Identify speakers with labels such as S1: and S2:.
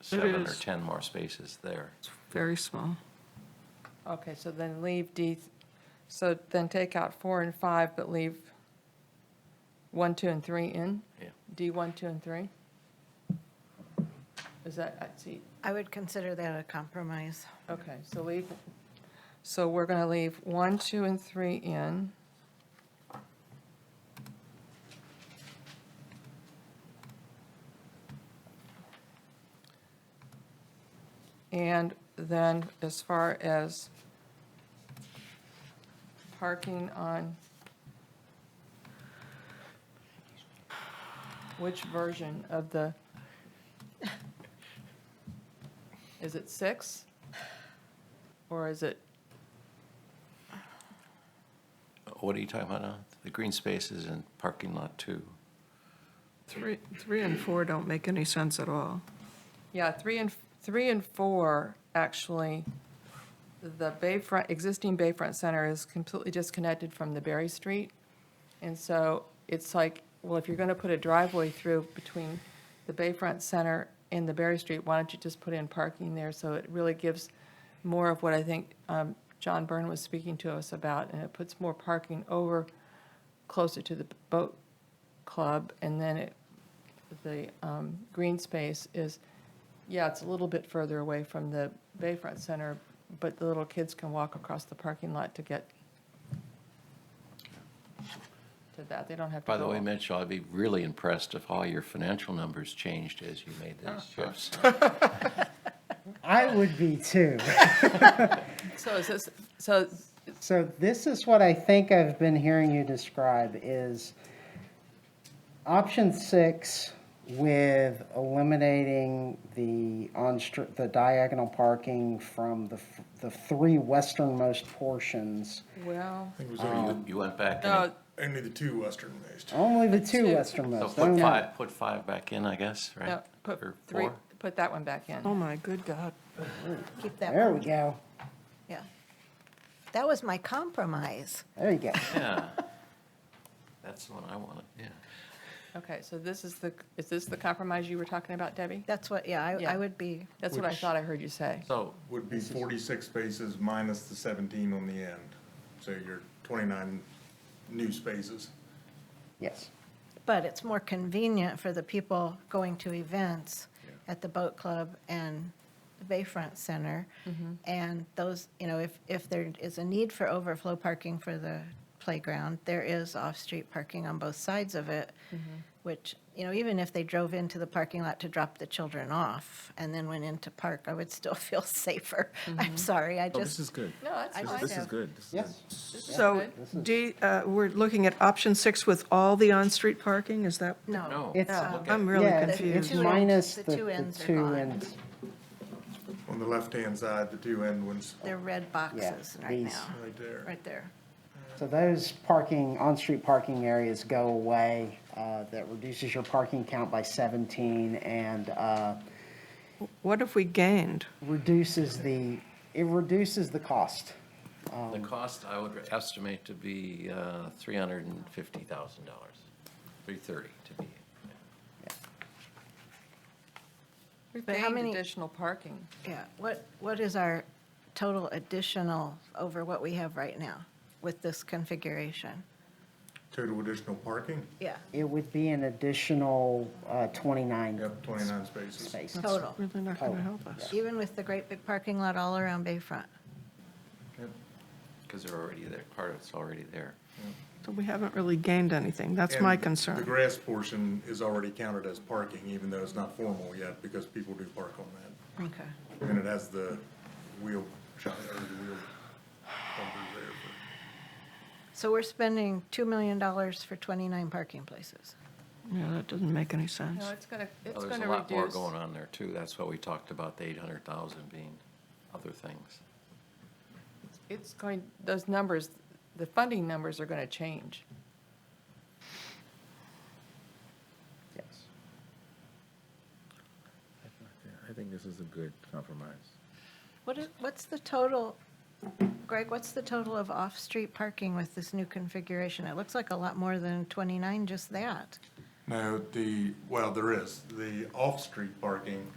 S1: seven or
S2: is.
S1: 10 more spaces there.
S2: Very small.
S3: Okay, so then leave D, so then take out four and five, but leave one, two, and three in?
S1: Yeah.
S3: D one, two, and three? Is that, I see,
S4: I would consider that a compromise.
S3: okay, so leave, so we're going to leave one, two, and three in. And then as far as parking on, which version of the, is it six? Or is it,
S1: What are you talking about now? The green spaces and parking lot two?
S2: Three, three and four don't make any sense at all.
S3: yeah, three and, three and four, actually, the Bayfront, existing Bayfront Center is completely disconnected from the Berry Street. And so it's like, well, if you're going to put a driveway through between the Bayfront Center and the Berry Street, why don't you just put in parking there? So it really gives more of what I think um, John Byrne was speaking to us about, and it puts more parking over closer to the boat club. And then it, the um, green space is, yeah, it's a little bit further away from the Bayfront Center, but the little kids can walk across the parking lot to get to that. They don't have to go.
S1: By the way,
S3: all-
S1: Mitchell, I'd be really impressed if all your financial numbers changed as you made these
S3: Ah.
S1: shifts.
S5: I would be too.
S3: So is this, so
S5: So this is what I think I've been hearing you describe is option six with eliminating the on, the diagonal parking from the, f- the three westernmost portions.
S3: Well,
S6: I think it was only,
S1: You- You went back
S3: no,
S1: and,
S6: the- only the two westernmost.
S5: Only the two
S3: Two.
S1: so
S5: westernmost.
S1: put
S5: only.
S1: five, put five back in, I guess, right?
S3: no, put
S1: Or
S3: three,
S1: four?
S3: put that one back in.
S2: Oh, my good God.
S4: Keep that
S5: There we
S4: one,
S5: go.
S4: yeah. That was my compromise.
S5: There you go.
S1: Yeah. That's the one I wanted, yeah.
S3: Okay, so this is the, is this the compromise you were talking about, Debbie?
S4: That's what, yeah, I,
S3: Yeah.
S4: I would be,
S3: That's what I
S6: Which-
S3: thought I heard you say.
S1: So,
S6: Would be forty-six spaces minus the seventeen on the end. So you're twenty-nine new spaces.
S5: Yes.
S4: but it's more convenient for the people going to events at the boat club and the Bayfront Center. And those, you know, if, if there is a need for overflow parking for the playground, there is off-street parking on both sides of it, which, you know, even if they drove into the parking lot to drop the children off and then went into park, I would still feel safer. I'm sorry, I
S7: Oh, this
S4: just,
S7: is good.
S3: No, that's
S4: I
S7: This-
S4: just
S3: fine.
S7: This is
S4: have-
S7: good. This is
S5: Yes.
S7: good.
S2: So D, uh, we're looking at option six with all the on-street parking, is that?
S4: no.
S1: no.
S5: It's-
S1: look at-
S2: I'm really
S5: Yeah, it's-
S2: confused.
S4: two
S5: It's
S4: ends-
S5: minus
S4: the
S5: the, the
S4: two ends are
S5: two
S4: gone.
S5: ends.
S6: On the left-hand side, the two end ones,
S4: They're red boxes right
S5: these.
S4: now,
S6: right there.
S4: right there.
S5: So those parking, on-street parking areas go away. uh, That reduces your parking count by 17 and uh,
S2: What have we gained?
S5: reduces the, it reduces the cost.
S1: The cost I would estimate to be uh, $350,000, 330 to be.
S3: We've
S4: But how
S3: gained
S4: many-
S3: additional parking.
S4: Yeah, what, what is our total additional over what we have right now with this configuration?
S6: Total additional parking,
S4: Yeah.
S5: It would be an additional uh, 29
S6: yep, twenty-nine spaces.
S5: spaces.
S4: Total,
S2: Really not going to help us.
S4: even with the great big parking lot all around Bayfront.
S1: Because they're already there, part of it's already there.
S2: So we haven't really gained anything, that's my
S6: And the- The
S2: concern.
S6: grass portion is already counted as parking, even though it's not formal yet, because people do park on that.
S4: Okay.
S6: And it has the wheel, shot- or the wheel bumper there for.
S4: So we're spending $2 million for 29 parking places.
S2: Yeah, that doesn't make any sense.
S3: No, it's going to,
S1: Well,
S3: it's
S1: Oh, There's
S3: going
S1: a
S3: to
S1: lot more
S3: reduce.
S1: going on there, too. That's why we talked about the 800,000 being other things.
S3: It's going, those numbers, the funding numbers are going to change.
S5: Yes.
S7: I think this is a good compromise.
S4: What is, what's the total, Greg, what's the total of off-street parking with this new configuration? It looks like a lot more than 29, just that.
S6: No, the, well, there is. The off-street parking